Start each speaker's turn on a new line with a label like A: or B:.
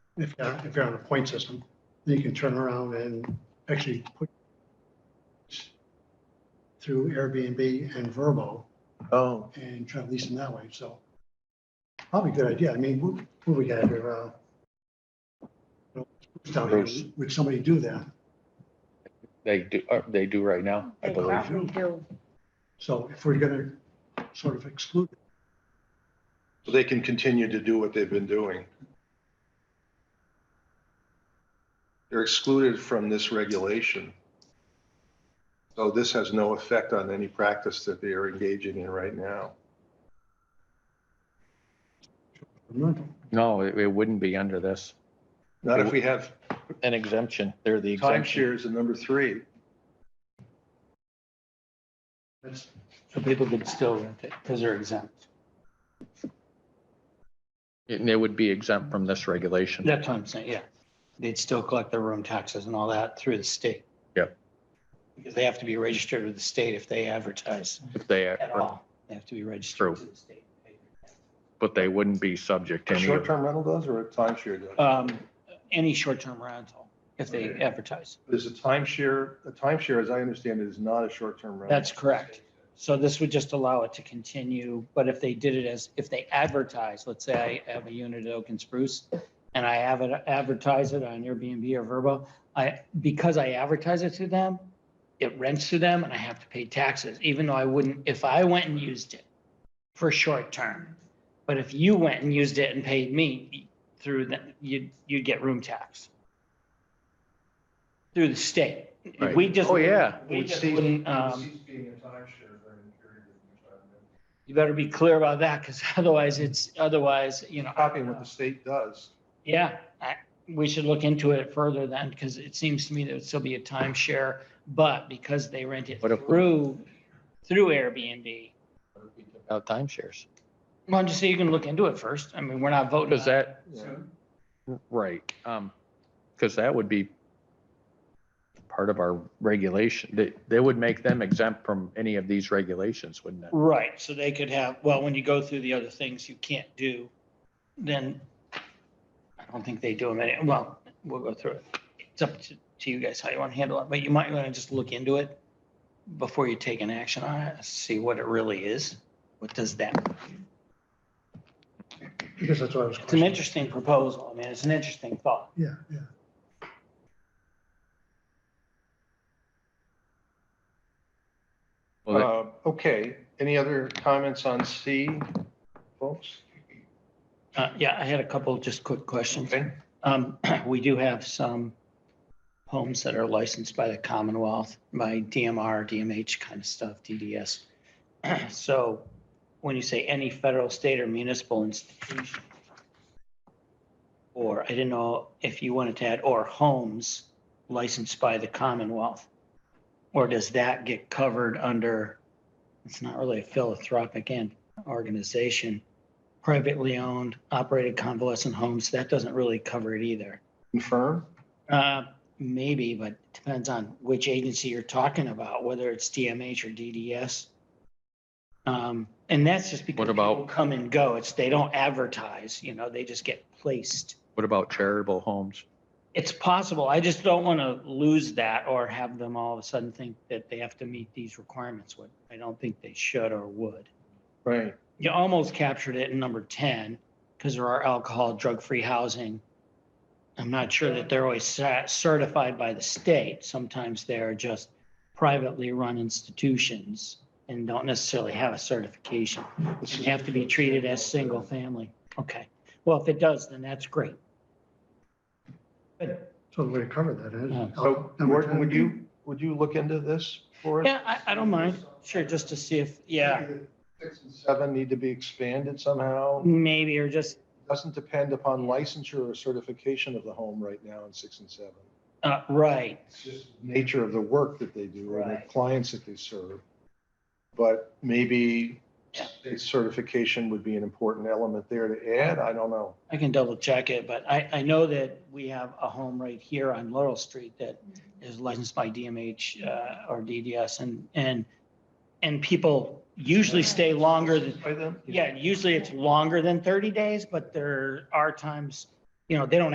A: if, if you're on a point system, then you can turn around and actually put through Airbnb and Verbo
B: Oh,
A: and try to lease them that way, so. Probably a good idea. I mean, what, what we got here, uh, you know, down here,
B: Bruce.
A: would somebody do that?
B: they do, uh, they do right now, I
C: They
B: believe.
C: probably do.
A: So if we're gonna sort of exclude,
D: So they can continue to do what they've been doing. They're excluded from this regulation. So this has no effect on any practice that they are engaging in right now.
A: rental,
B: No, it, it wouldn't be under this,
D: Not if we have
B: an exemption, they're the exemption.
D: timeshares in number three.
A: that's,
E: So people could still rent it because they're exempt.
B: And they would be exempt from this regulation.
E: That's what I'm saying, yeah. They'd still collect their room taxes and all that through the state.
B: Yep.
E: Because they have to be registered with the state if they advertise
B: If they,
E: at all. They have to be
B: True.
E: registered to the state.
B: but they wouldn't be subject to
D: A
B: any of
D: short-term rental does or a timeshare does?
E: Um, any short-term rental, if they
D: Okay.
E: advertise.
D: Is a timeshare, a timeshare, as I understand it, is not a short-term rental.
E: That's correct. So this would just allow it to continue, but if they did it as, if they advertise, let's say I have a unit at Oak and Spruce and I have it, advertise it on Airbnb or Verbo, I, because I advertise it to them, it rents to them and I have to pay taxes, even though I wouldn't, if I went and used it for short term. But if you went and used it and paid me through the, you'd, you'd get room tax. Through the state.
B: Right.
E: We just.
B: Oh, yeah.
E: We
D: Would
E: just
D: cease-
E: wouldn't,
D: would
E: um.
D: cease being a timeshare during the period of retirement.
E: You better be clear about that, because otherwise it's, otherwise, you know.
D: Copying what the state does.
E: Yeah, I, we should look into it further then, because it seems to me there would still be a timeshare, but because they rent it
B: What if we-
E: through, through Airbnb.
B: about timeshares.
E: Well, just so you can look into it first. I mean, we're not voting.
B: Because
E: on it.
B: that, right, um, because that would be part of our regulation, they, they would make them exempt from any of these regulations, wouldn't it?
E: Right, so they could have, well, when you go through the other things you can't do, then I don't think they do them any, well, we'll go through it. It's up to, to you guys how you want to handle it, but you might want to just look into it before you take an action on it, see what it really is. What does that,
A: because that's what I was.
E: it's an
A: questioning.
E: interesting proposal. I mean, it's an interesting thought.
A: Yeah, yeah.
B: Well, that-
D: Uh, Okay, any other comments on C, folks?
E: Uh, yeah, I had a couple just quick questions.
D: Okay,
E: Um, we do have some homes that are licensed by the Commonwealth, by DMR, DMH kind of stuff, DDS. So when you say any federal, state or municipal institution, or I didn't know if you wanted to add, or homes licensed by the Commonwealth. Or does that get covered under, it's not really a philanthropic end organization, privately owned, operated convalescent homes, that doesn't really cover it either.
D: confirm?
E: Uh, Maybe, but depends on which agency you're talking about, whether it's DMH or DDS. Um, And that's just because
B: What about-
E: people Come and go. It's, they don't advertise, you know, they just get placed.
B: What about charitable homes?
E: It's possible. I just don't want to lose that or have them all of a sudden think that they have to meet these requirements. What I don't think they should or would.
D: Right.
E: You almost captured it in number ten, because there are alcohol, drug-free housing. I'm not sure that they're always cer- certified by the state. Sometimes they're just privately run institutions and don't necessarily have a certification.
D: This
E: They
D: is-
E: Have to be treated as single family. Okay. Well, if it does, then that's great.
A: So the way to cover that is. uh,
E: Yeah.
D: So
A: Number
D: Morton,
A: 10.
D: Oh, would you, would you look into this for us?
E: Oh, Yeah, I, I don't mind. Sure, just to see if, yeah,
D: Maybe the Six and seven need to be expanded somehow.
E: maybe, or just,
D: Doesn't depend upon licensure or certification of the home right now in six and seven.
E: uh, right.
D: It's just nature of the work that they do or the
E: Right.
D: clients that they serve. But maybe
E: Yeah.
D: state certification would be an important element there to add. I don't know.
E: I can double check it, but I, I know that we have a home right here on Laurel Street that is licensed by DMH uh, or DDS and, and, and people usually stay longer than,
D: By them?
E: yeah, usually it's longer than 30 days, but there are times, you know, they don't